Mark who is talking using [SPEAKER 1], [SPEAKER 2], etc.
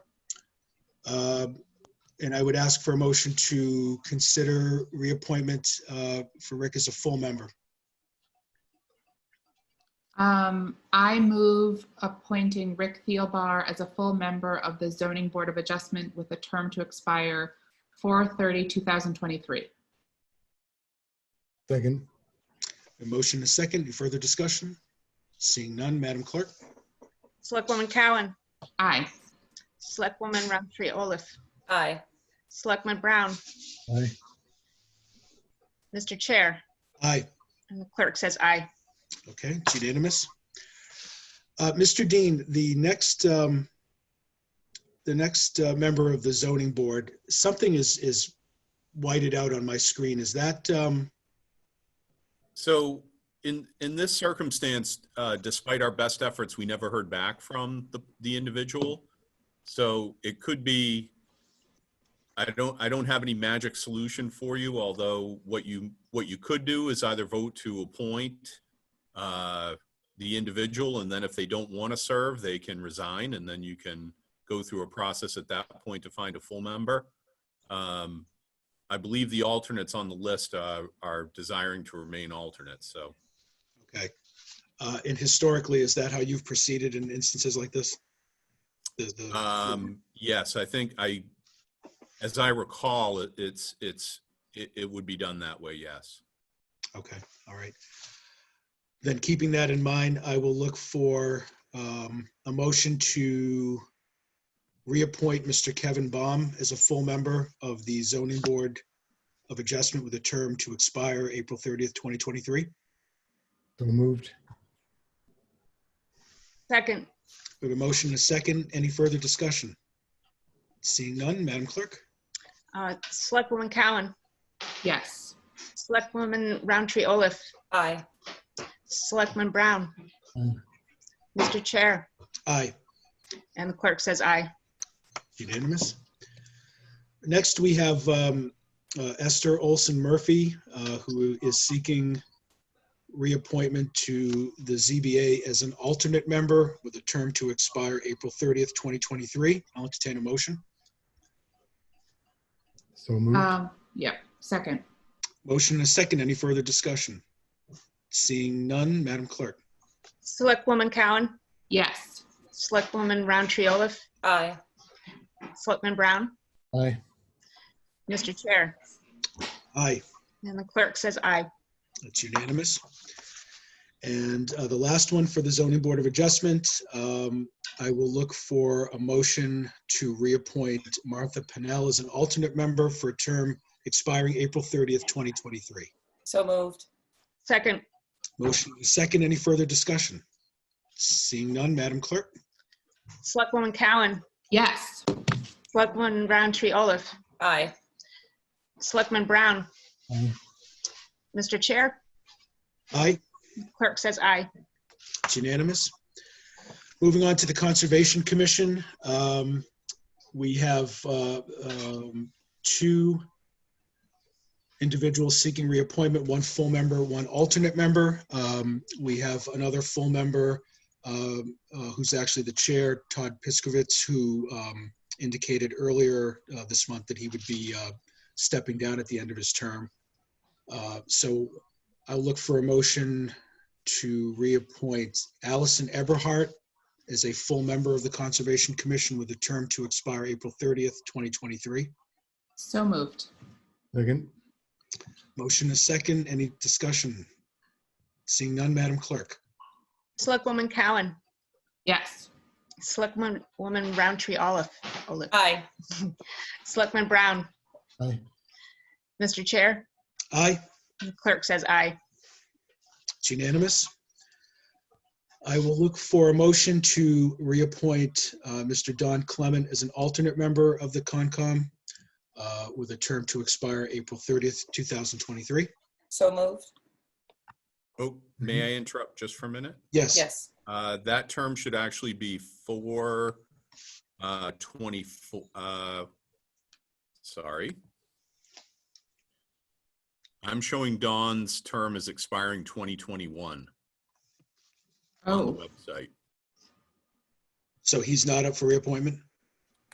[SPEAKER 1] Um, And I would ask for a motion to consider reappointment uh, for Rick as a full member.
[SPEAKER 2] Um, I move appointing Rick Thielbar as a full member of the Zoning Board of Adjustment with a term to expire 2023.
[SPEAKER 3] Second,
[SPEAKER 1] A motion and a second. Any further discussion? Seeing none, Madam Clerk?
[SPEAKER 4] Selectwoman Cowan.
[SPEAKER 2] Aye.
[SPEAKER 4] Selectwoman Roundtree Olaf.
[SPEAKER 5] aye,
[SPEAKER 4] Selectman Brown.
[SPEAKER 3] aye,
[SPEAKER 4] Mr. Chair.
[SPEAKER 1] Aye.
[SPEAKER 4] And the clerk says aye.
[SPEAKER 1] Okay, it's unanimous. Uh, Mr. Dean, the next, um, the next uh, member of the zoning board, something is, is whited out on my screen. Is that, um,
[SPEAKER 6] So in, in this circumstance, uh, despite our best efforts, we never heard back from the, the individual. So it could be, I don't, I don't have any magic solution for you, although what you, what you could do is either vote to appoint uh, the individual, and then if they don't want to serve, they can resign, and then you can go through a process at that point to find a full member. Um, I believe the alternates on the list uh, are desiring to remain alternates, so.
[SPEAKER 1] okay. Uh, and historically, is that how you've proceeded in instances like this? The- the-
[SPEAKER 6] Um, yes, I think I, as I recall, it- it's, it's, it, it would be done that way, yes.
[SPEAKER 1] Okay, all right. Then keeping that in mind, I will look for um, a motion to reappoint Mr. Kevin Baum as a full member of the zoning board of adjustment with a term to expire April 30th, 2023.
[SPEAKER 3] so moved,
[SPEAKER 4] Second.
[SPEAKER 1] We have a motion and a second. Any further discussion? Seeing none, Madam Clerk?
[SPEAKER 4] Uh, Selectwoman Cowan.
[SPEAKER 2] Yes.
[SPEAKER 4] Selectwoman Roundtree Olaf.
[SPEAKER 5] aye,
[SPEAKER 4] Selectman Brown.
[SPEAKER 3] Aye.
[SPEAKER 4] Mr. Chair.
[SPEAKER 1] Aye.
[SPEAKER 4] And the clerk says aye.
[SPEAKER 1] Unanimous. Next, we have um, uh, Esther Olson Murphy, uh, who is seeking reappointment to the ZBA as an alternate member with a term to expire April 30th, 2023. I'll entertain a motion.
[SPEAKER 3] so moved,
[SPEAKER 2] Um, yep, second.
[SPEAKER 1] Motion and a second. Any further discussion? Seeing none, Madam Clerk.
[SPEAKER 4] Selectwoman Cowan.
[SPEAKER 2] Yes.
[SPEAKER 4] Selectwoman Roundtree Olaf.
[SPEAKER 5] aye,
[SPEAKER 4] Selectman Brown.
[SPEAKER 3] aye,
[SPEAKER 4] Mr. Chair.
[SPEAKER 1] Aye.
[SPEAKER 4] And the clerk says aye.
[SPEAKER 1] That's unanimous. And uh, the last one for the zoning board of adjustment, um, I will look for a motion to reappoint Martha Pennell as an alternate member for a term expiring April 30th, 2023.
[SPEAKER 5] so moved,
[SPEAKER 4] Second.
[SPEAKER 1] Motion is second. Any further discussion? Seeing none, Madam Clerk?
[SPEAKER 4] Selectwoman Cowan.
[SPEAKER 2] Yes.
[SPEAKER 4] Selectwoman Roundtree Olaf.
[SPEAKER 5] aye,
[SPEAKER 4] Selectman Brown.
[SPEAKER 3] aye,
[SPEAKER 4] Mr. Chair.
[SPEAKER 1] Aye,
[SPEAKER 4] Clerk says aye.
[SPEAKER 1] it's unanimous. Moving on to the Conservation Commission, um, we have uh, um, two individuals seeking reappointment, one full member, one alternate member. Um, We have another full member um, uh, who's actually the chair, Todd Piskovitz, who um, indicated earlier uh, this month that he would be uh, stepping down at the end of his term. Uh, So I'll look for a motion to reappoint Allison Eberhart as a full member of the Conservation Commission with a term to expire April 30th, 2023.
[SPEAKER 2] So moved.
[SPEAKER 3] second,
[SPEAKER 1] Motion is second. Any discussion? Seeing none, Madam Clerk.
[SPEAKER 4] Selectwoman Cowan.
[SPEAKER 2] Yes.
[SPEAKER 4] Selectwoman Woman Roundtree Olaf. Olaf.
[SPEAKER 5] aye,
[SPEAKER 4] Selectman Brown.
[SPEAKER 3] aye,
[SPEAKER 4] Mr. Chair.
[SPEAKER 1] Aye,
[SPEAKER 4] The clerk says aye.
[SPEAKER 1] it's unanimous. I will look for a motion to reappoint uh, Mr. Don Clement as an alternate member of the Concom uh, with a term to expire April 30th, 2023.
[SPEAKER 5] so moved,
[SPEAKER 6] Oh, may I interrupt just for a minute?
[SPEAKER 1] Yes.
[SPEAKER 5] yes,
[SPEAKER 6] Uh, that term should actually be for, uh, twenty-four, uh, sorry. I'm showing Dawn's term is expiring twenty twenty-one on the
[SPEAKER 2] Oh,
[SPEAKER 6] website.
[SPEAKER 1] So he's not up for reappointment?